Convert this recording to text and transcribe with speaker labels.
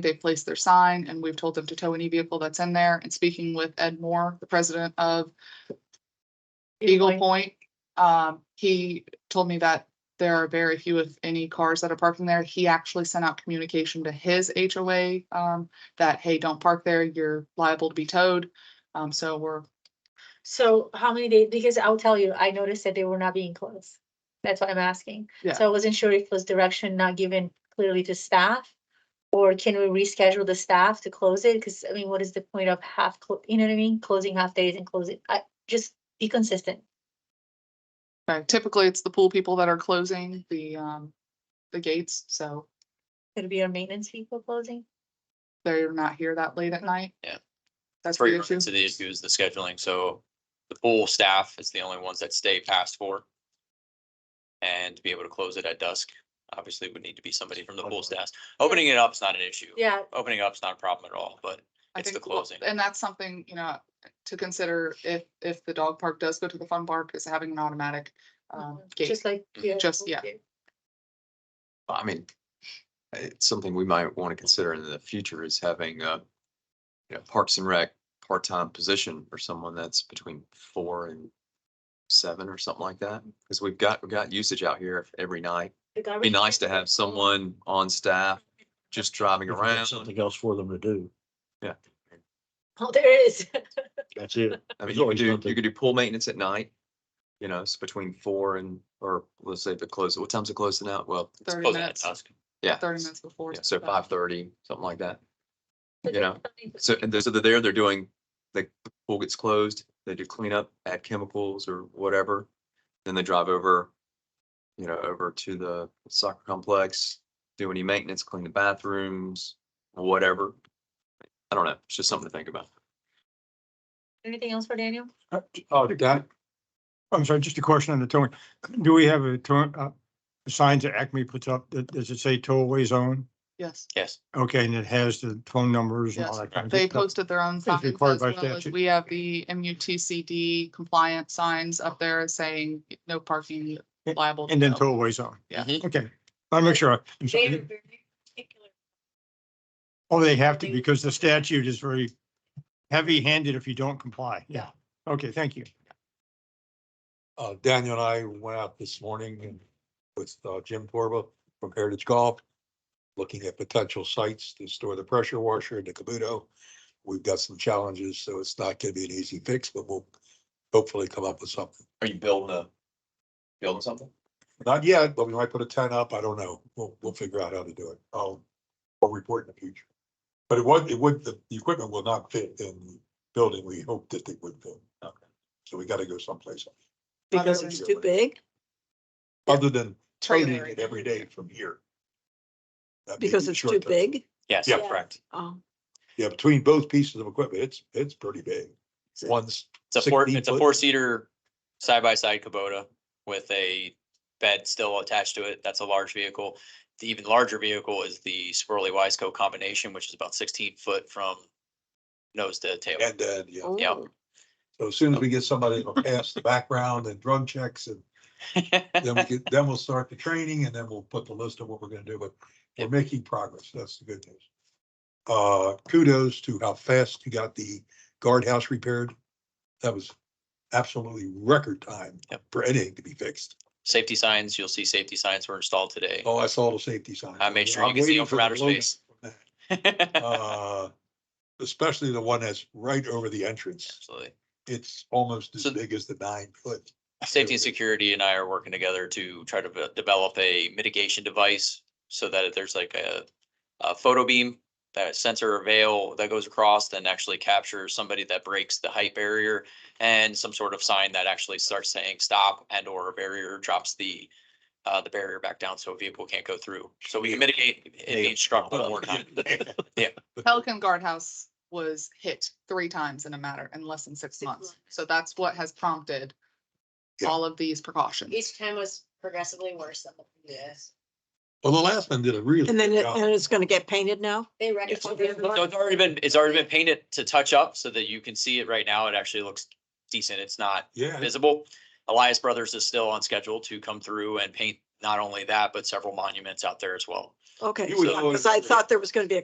Speaker 1: They've placed their sign and we've told them to tow any vehicle that's in there. And speaking with Ed Moore, the president of Eagle Point, um, he told me that there are very few, if any, cars that are parking there. He actually sent out communication to his HOA, um, that, hey, don't park there. You're liable to be towed. Um, so we're,
Speaker 2: So how many days, because I'll tell you, I noticed that they were not being closed. That's why I'm asking.
Speaker 1: Yeah.
Speaker 2: So I wasn't sure if it was direction not given clearly to staff. Or can we reschedule the staff to close it? Because I mean, what is the point of half, clo- you know what I mean? Closing half days and closing, I, just be consistent.
Speaker 1: okay, uh, typically it's the pool people that are closing the, um, the gates. So
Speaker 2: Could it be our maintenance people closing?
Speaker 1: they're not here that late at night.
Speaker 3: Yeah.
Speaker 1: That's
Speaker 3: Where
Speaker 1: the
Speaker 3: you run
Speaker 1: issue.
Speaker 3: into the issue is the scheduling, so the pool staff is the only ones that stay past four. And to be able to close it at dusk, obviously would need to be somebody from the pool staff. Opening it up is not an issue.
Speaker 2: Yeah,
Speaker 3: Opening up's not a problem at all, but
Speaker 1: I
Speaker 3: It's the
Speaker 1: think, well,
Speaker 3: closing.
Speaker 1: And that's something, you know, to consider if, if the dog park does go to the fun park is having an automatic, um, gate.
Speaker 2: Mm-hmm. just like.
Speaker 1: Just- yeah.
Speaker 4: I mean, it's something we might want to consider in the future is having a, you know, Parks and Rec part-time position for someone that's between four and seven or something like that. Because we've got, we've got usage out here every night. It'd Be nice to have someone on staff just driving
Speaker 5: If you got
Speaker 4: around.
Speaker 5: Something else for them to do.
Speaker 2: Oh, there is.
Speaker 5: That's it.
Speaker 4: I mean, you
Speaker 5: There's
Speaker 4: could
Speaker 5: always
Speaker 4: do,
Speaker 5: something.
Speaker 4: you could do pool maintenance at night. You know, it's between four and, or let's say if it closes, what time's it closing out? Well,
Speaker 1: Thirty
Speaker 3: closing at
Speaker 1: minutes,
Speaker 3: dusk.
Speaker 4: yeah.
Speaker 1: thirty minutes before.
Speaker 4: Yeah, so
Speaker 1: sundown.
Speaker 4: five thirty, something like that. You know, So, and they're- so they're there, they're doing, the pool gets closed, they do cleanup, add chemicals or whatever. Then they drive over, you know, over to the soccer complex, do any maintenance, clean the bathrooms, whatever. I don't know, it's just something to think about.
Speaker 2: Anything else for Daniel?
Speaker 6: Uh, Oh, that, I'm sorry, just a question on the towing. Do we have a tow, uh, the signs that Acme puts up, that- does it say tollway zone?
Speaker 1: Yes,
Speaker 3: Yes,
Speaker 6: Okay, and it has the phone numbers and all
Speaker 1: Yes, uh,
Speaker 6: that kind of
Speaker 1: they
Speaker 6: stuff.
Speaker 1: posted their own signs as
Speaker 6: required by
Speaker 1: well as
Speaker 6: statute.
Speaker 1: we have the MUTCD compliant signs up there saying no parking liable. to
Speaker 6: And then
Speaker 1: tow.
Speaker 6: tollway zone.
Speaker 1: Yeah.
Speaker 3: Mhm.
Speaker 6: Okay, I'll make sure. I'm sorry. Oh, they have to because the statute is very heavy handed if you don't comply. Yeah. Okay, thank you.
Speaker 7: uh, Daniel and I went out this morning and with uh, Jim Torba from Heritage Golf, looking at potential sites to store the pressure washer and the Kabuto. We've got some challenges, so it's not gonna be an easy fix, but we'll hopefully come up with something.
Speaker 4: Are you building a, building something?
Speaker 7: Not yet, but we might put a tent up. I don't know. We'll, we'll figure out how to do it. I'll, I'll report in the future. But it would, it would, the, the equipment will not fit in the building. We hoped that they would fit. Okay. So we gotta go someplace. else.
Speaker 8: Because
Speaker 1: Other
Speaker 8: it's
Speaker 7: than-
Speaker 8: too big,
Speaker 7: Other than training
Speaker 1: Trailer.
Speaker 7: it every day from here. That'd be
Speaker 8: because it's too
Speaker 7: short-term.
Speaker 8: big.
Speaker 3: yes,
Speaker 7: Yeah.
Speaker 3: correct.
Speaker 8: Oh,
Speaker 7: Yeah, between both pieces of equipment, it's, it's pretty big.
Speaker 8: So-
Speaker 7: One's,
Speaker 3: It's a four,
Speaker 7: 16
Speaker 3: it's a
Speaker 7: foot.
Speaker 3: four seater side by side Kubota with a bed still attached to it. That's a large vehicle. The even larger vehicle is the Swirly Wiseco combination, which is about sixteen foot from nose to tail.
Speaker 7: and then, yeah,
Speaker 3: Yeah.
Speaker 8: ooh.
Speaker 7: so as soon as we get somebody to pass the background and drug checks and then we get, then we'll start the training and then we'll put the list of what we're gonna do, but we're making progress. That's the good news. Uh, kudos to how fast you got the guardhouse repaired. That was absolutely record time
Speaker 3: Yep.
Speaker 7: for anything to be fixed.
Speaker 3: Safety signs, you'll see safety signs were installed today.
Speaker 7: Oh, I saw the safety sign.
Speaker 3: I made sure you could see them from outer space.
Speaker 7: uh, especially the one that's right over the entrance.
Speaker 3: Absolutely.
Speaker 7: It's almost as
Speaker 3: So-
Speaker 7: big as the nine foot.
Speaker 3: Safety and security and I are working together to try to ve- develop a mitigation device so that if there's like a, a photo beam, that sensor or veil that goes across and actually captures somebody that breaks the height barrier and some sort of sign that actually starts saying stop and or a barrier drops the, uh, the barrier back down so a vehicle can't go through. So we can mitigate it being struck one more time. Yeah.
Speaker 1: Pelican Guardhouse was hit three times in a matter, in less than six
Speaker 2: Six
Speaker 1: months.
Speaker 2: months.
Speaker 1: So that's what has prompted
Speaker 7: Yeah.
Speaker 1: all of these precautions.
Speaker 9: Each time was progressively worse than the previous.
Speaker 7: Well, the last one did a really.
Speaker 8: And then,
Speaker 7: good
Speaker 8: it-
Speaker 7: job.
Speaker 8: and it's gonna get painted now?
Speaker 9: They
Speaker 3: Yes. So
Speaker 9: recognized.
Speaker 3: it's already been, it's already been painted to touch up so that you can see it right now. It actually looks decent. It's not
Speaker 7: Yeah, it's-
Speaker 3: visible. Elias Brothers is still on schedule to come through and paint not only that, but several monuments out there as well.
Speaker 8: Okay,
Speaker 7: You would
Speaker 8: yeah,
Speaker 7: always-
Speaker 8: because I thought there was gonna be a